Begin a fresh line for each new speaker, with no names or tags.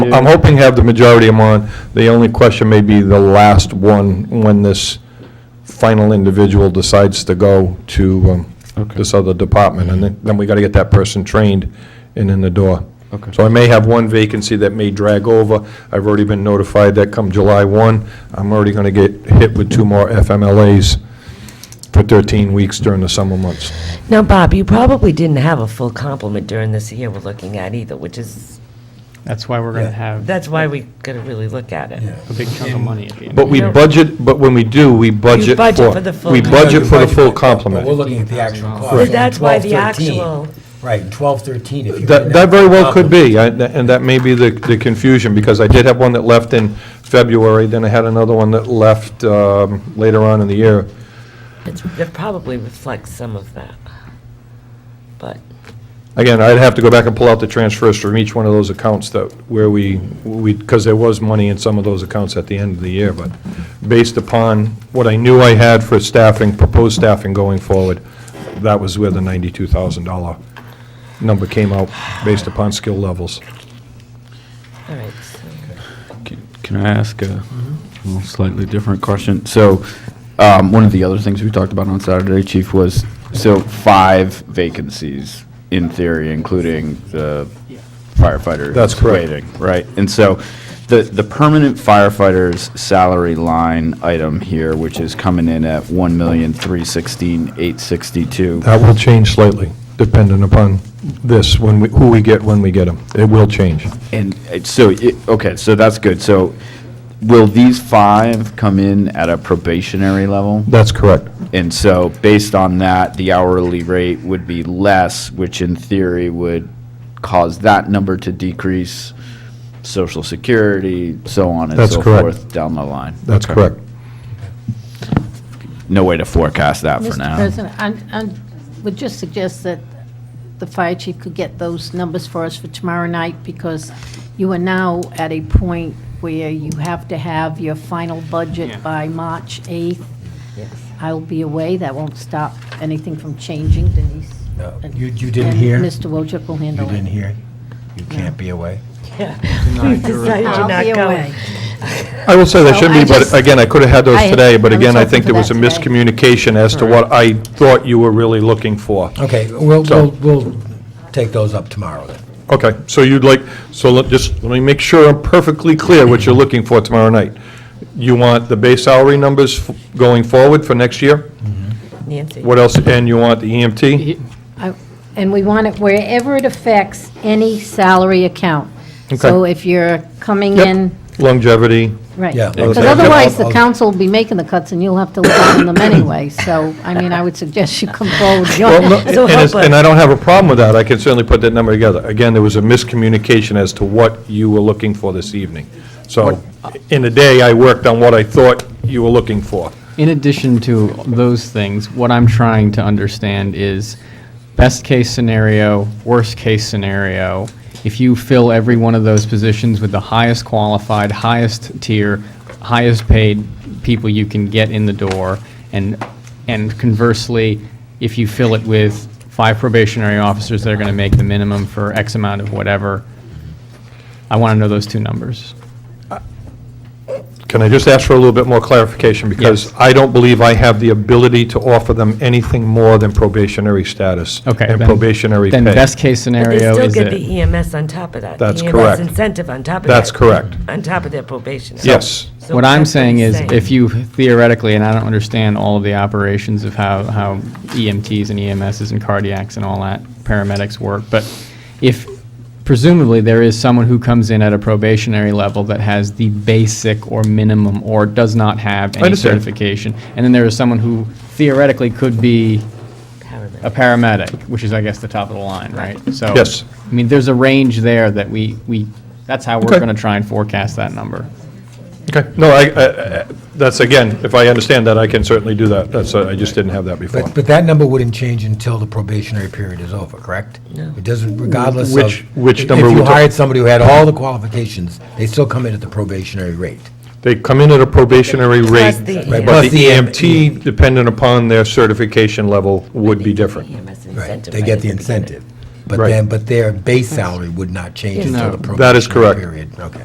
you?
I'm hoping to have the majority of them on. The only question may be the last one, when this final individual decides to go to um,
Okay.
this other department, and then- then we got to get that person trained and in the door.
Okay.
So I may have one vacancy that may drag over. I've already been notified that come July 1, I'm already going to get hit with two more FMLAs for 13 weeks during the summer months.
Now, Bob, you probably didn't have a full complement during this year we're looking at either, which is,
That's why we're going to
Yeah.
have a
that's why we gotta really look at it.
big chunk of money at the end.
But we
Yeah.
budget, but when we do, we budget for...
budget for the full
We budget for the full
But we're
complement.
looking at the actual cost.
Right.
in
That's why the
1213.
actual-
Right, in twelve thirteen, if you.
That that very well could be, I- and that may be the the confusion, because I did have one that left in February, then I had another one that left um, later on in the year.
It's, it probably reflects some of that. But,
Again, I'd have to go back and pull out the transfers from each one of those accounts that, where we, we, because there was money in some of those accounts at the end of the year, but based upon what I knew I had for staffing, proposed staffing going forward, that was where the $92,000 number came out, based upon skill levels.
all right, so,
Can I ask a well, slightly different question? So, um, one of the other things we talked about on Saturday, Chief, was, so five vacancies in theory, including the firefighter.
That's correct.
waiting, Right, and so the, the permanent firefighter's salary line item here, which is coming in at one million, three sixteen, eight sixty-two.
That will change slightly, dependent upon this, when we, who we get, when we get them. It will change.
And uh, so, it- okay, so that's good. So will these five come in at a probationary level?
That's correct.
And so, based on that, the hourly rate would be less, which in theory would cause that number to decrease, social security, so on and
That's
so
correct.
forth down the line.
That's
Okay.
correct.
No way to forecast that for
Mr.
now.
President, I would just suggest that the fire chief could get those numbers for us for tomorrow night, because you are now at a point where you have to have your final
Yeah.
budget by March 8th.
yes.
I'll be away, that won't stop anything from changing, Denise.
No,
and-
you- you didn't
and
hear?
Mr. Wojcik will
You
handle it.
didn't hear, you can't be away.
Yeah. We decided you're
I'll
not
be
going.
away.
I will say that
So
shouldn't
I
be, but
just-
again, I could have had those
I-
today, but
I was
again, I
hoping
think
for
there was a
that today.
miscommunication as to what I thought you were really looking for.
Okay, we'll,
So-
we'll, we'll take those up tomorrow then.
Okay, so you'd like, so let, just, let me make sure I'm perfectly clear what you're looking for tomorrow night. You want the base salary numbers f- going forward for next year?
Nancy.
What else, and you want the E EMT?
I- And we want it wherever it affects any salary account. So
Okay.
if you're coming
Yep.
in
Longevity,
Right.
Yeah.
Because
Okay.
otherwise, the
I'll-
council will be making the cuts, and you'll have to live on them anyway. So, I mean, I would suggest you come forward with your-
Well, no, and
So
it's-
help
And
us.
I don't have a problem with that, I can certainly put that number together. Again, there was a miscommunication as to what you were looking for this evening. So, in the day, I worked on what I thought you were looking for.
In addition to those things, what I'm trying to understand is best-case scenario, worst-case scenario. If you fill every one of those positions with the highest qualified, highest tier, highest paid people you can get in the door, and, and conversely, if you fill it with five probationary officers that are going to make the minimum for X amount of whatever, I want to know those two numbers.
Can I just ask for a little bit more clarification? Because
Yes.
I don't believe I have the ability to offer them anything more than probationary status.
Okay.
And
then-
probationary pay.
Then best-case
But they
scenario
still
is
get
it
the EMS on top of that.
That's
The
correct.
EMS incentive on top of that.
That's correct.
On top of their probation.
Yes.
So
What I'm
that's
saying
he's
is, if you theoretically, and I don't understand all of the operations of how, how EMTs and EMSs and cardiacs and all that, paramedics work, but if presumably there is someone who comes in at a probationary level that has the basic or minimum or does not have any
understand.
certification, and then there is someone who theoretically could be
Paramedic.
a paramedic, which is, I guess, the top of the line, right? So,
Yes.
I mean, there's a range there that we, we, that's how
Okay.
we're gonna try and forecast that number.
Okay, no, I, I- I- that's, again, if I understand that, I can certainly do that. That's, uh, I just didn't have that before.
But, but that number wouldn't change until the probationary period is over, correct? No. It doesn't, regardless of.
Which- which
if-
number
If
we're
you
talking-
hired somebody who had all the qualifications, they still come in at the probationary rate.
They come in at a probationary rate,
Plus the E
Right,
but
plus
the
the E EM-
EMT, dependent upon their certification level, would be different.
EMS
Right,
E incentive
they
right
get
at
the
beginning.
incentive. But
Right.
then, but their base salary would not change until the
That is correct.
probationary period. That is correct. Okay.